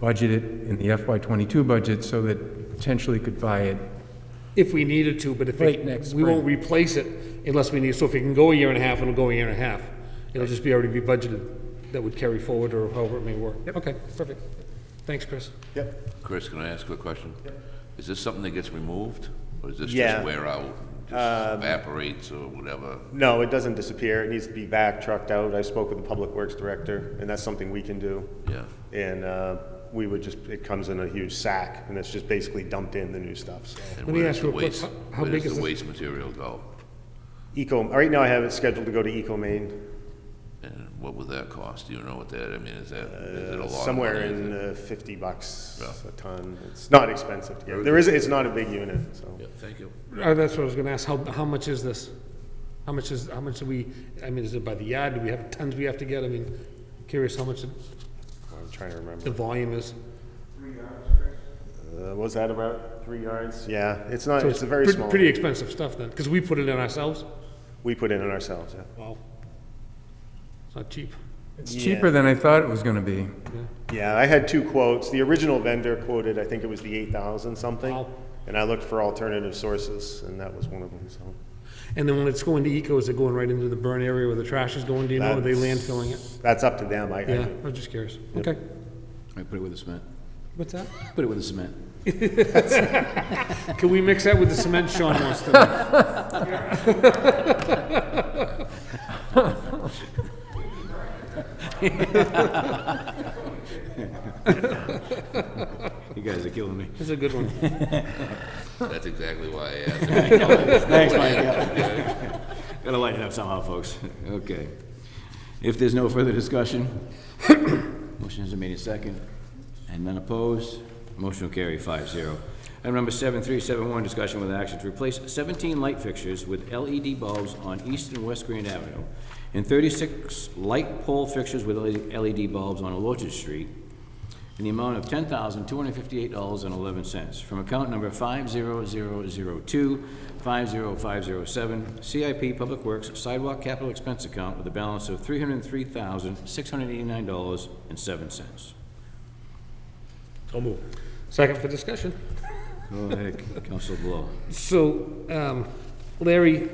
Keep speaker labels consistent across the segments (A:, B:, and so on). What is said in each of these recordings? A: budget it in the FY '22 budget so that potentially could buy it.
B: if we needed to, but if, it-
A: Right, next
B: we won't
A: spring.
B: replace it unless we need, so if it can go a year and a half, it'll go a year and a half. It'll just be already be budgeted, that would carry forward or however it may work. Okay, perfect. Thanks, Chris.
C: Yep.
D: Chris, can I ask a question? Is this something that gets removed, or is this
C: Yeah.
D: just wear out,
B: Um,
D: just evaporates or whatever?
C: No, it doesn't disappear. It needs to be back trucked out. I spoke with the Public Works Director, and that's something we can do.
D: Yeah,
C: And uh, we would just, it comes in a huge sack, and it's just basically dumped in the new stuff, so.
D: and
B: me
D: where
B: ask
D: does the
B: you a quick-
D: waste,
B: how- how
D: where
B: big is
D: does the
B: this?
D: waste material go?
C: Eco, right now I have it scheduled to go to Eco Maine,
D: And what would that cost? Do you know what that, I mean, is that, is it a lot? of
C: somewhere
D: money? Is
C: in
D: it-
C: the fifty bucks
D: Yeah.
C: a ton. It's not expensive to get. There is, it's not a big unit, so.
D: Yeah, thank you.
B: Uh, that's what I was gonna ask, how, how much is this? How much is, how much do we, I mean, is it by the yard, do we have tons we have to get? I mean, curious how much
C: I'm trying to remember.
B: the volume is.
C: Uh, Was that about three yards? Yeah, it's not,
B: So
C: it's a very
B: pre-
C: small.
B: Pretty
C: unit.
B: expensive stuff then, because we put it in ourselves.
C: We put in it ourselves, yeah.
B: Wow. It's not cheap.
A: It's cheaper than I thought it was gonna be.
C: Yeah, I had two quotes. The original vendor quoted, I think it was the eight thousand something.
B: Wow.
C: And I looked for alternative sources, and that was one of them, so.
B: And then when it's going to eco, is it going right into the burn area where the trash is going, do you know, are they
C: That's-
B: landfilling it?
C: That's up to them, I, I
B: Yeah,
C: do.
B: I'm just curious. Okay.
E: I put it with the cement.
B: What's that?
E: Put it with the cement.
B: Can we mix that with the cement Sean wants to? do?
E: You guys are killing me.
B: That's a good one.
D: That's exactly why I asked.
E: Thanks, Mike. Gotta lighten it up somehow, folks. Okay. If there's no further discussion, motion has been made in second, and none opposed, motion will carry five zero. Item number seven three seven one, discussion with action to replace seventeen light fixtures with LED bulbs on East and West Green Avenue, and thirty-six light pole fixtures with E LED bulbs on Orchard Street, in the amount of ten thousand, two hundred fifty-eight dollars and eleven cents from account number five zero zero zero two, five zero five zero seven, CIP Public Works Sidewalk Capital Expense Account with a balance of three hundred and three thousand, six hundred eighty-nine dollars and seven cents.
B: So move. Second for discussion.
E: Go ahead, Counsel Blow.
B: So, um, Larry,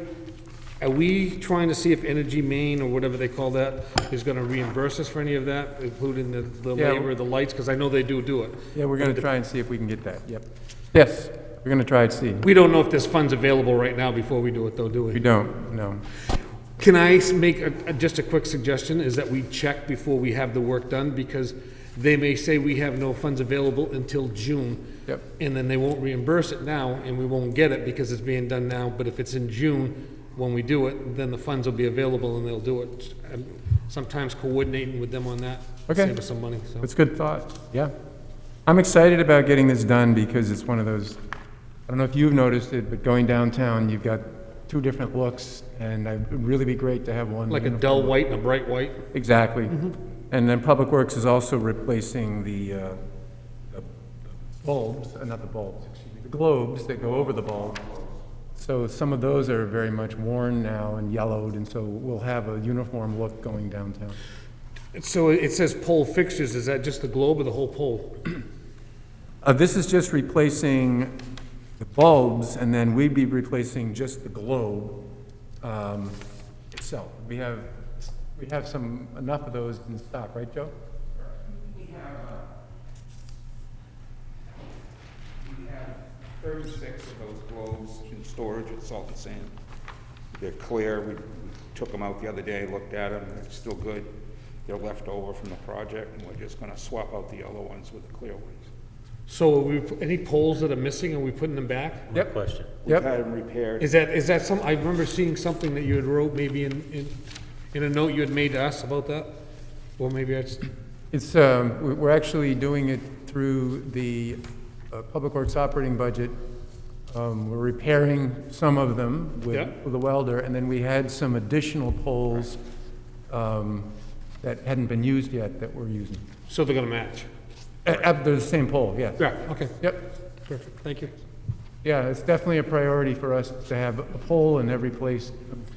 B: are we trying to see if Energy Maine, or whatever they call that, is gonna reimburse us for any of that, including the- the
A: Yeah.
B: labor, the lights? Because I know they do do it.
A: Yeah, we're gonna try and see if we can get that, yep. Yes, we're gonna try and see.
B: We don't know if there's funds available right now before we do it, though, do we?
A: We don't, no.
B: Can I s- make a, a- just a quick suggestion, is that we check before we have the work done, because they may say we have no funds available until June.
A: Yep.
B: And then they won't reimburse it now, and we won't get it because it's being done now, but if it's in June, when we do it, then the funds will be available and they'll do it. Um, Sometimes coordinating with them on that,
A: Okay.
B: save us some money, so.
A: That's good thought, yeah. I'm excited about getting this done because it's one of those, I don't know if you've noticed it, but going downtown, you've got two different looks, and I- it'd really be great to have one.
B: Like a
A: uniform.
B: dull white and a bright white,
A: Exactly. And then Public Works is also replacing the uh, the bulbs, uh, not the bulbs, excuse me, the globes that go over the bulb. So some of those are very much worn now and yellowed, and so we'll have a uniform look going downtown.
B: so it says pole fixtures, is that just the globe or the whole pole?
A: Uh, This is just replacing the bulbs, and then we'd be replacing just the globe um, itself. We have, we have some, enough of those in stock, right, Joe?
F: We have, uh, we have thirty-six of those globes in storage at Salt and Sand. They're clear, we we took them out the other day, looked at them, they're still good. They're left over from the project, and we're just gonna swap out the yellow ones with the clear ones.
B: So are we, any poles that are missing, are we putting them back?
G: question.
C: We've
A: Yep.
C: had them repaired.
B: Is that, is that some, I remember seeing something that you had wrote maybe in, in, in a note you had made to us about that? Or maybe I just,
A: It's, um, we- we're actually doing it through the uh, Public Works operating budget. Um, We're repairing some of them with
B: Yeah.
A: with the welder, and then we had some additional poles um, that hadn't been used yet that we're using.
B: so they're gonna match?
A: Uh, uh, They're the same pole, yes.
B: Yeah, okay,
A: Yep,
B: perfect, thank you.
A: yeah, it's definitely a priority for us to have a pole in every place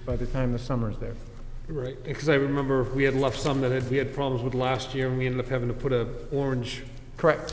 A: by the time the summer's there.
B: Right, because I remember we had left some that had, we had problems with last year and we ended up having to put a orange
A: Correct.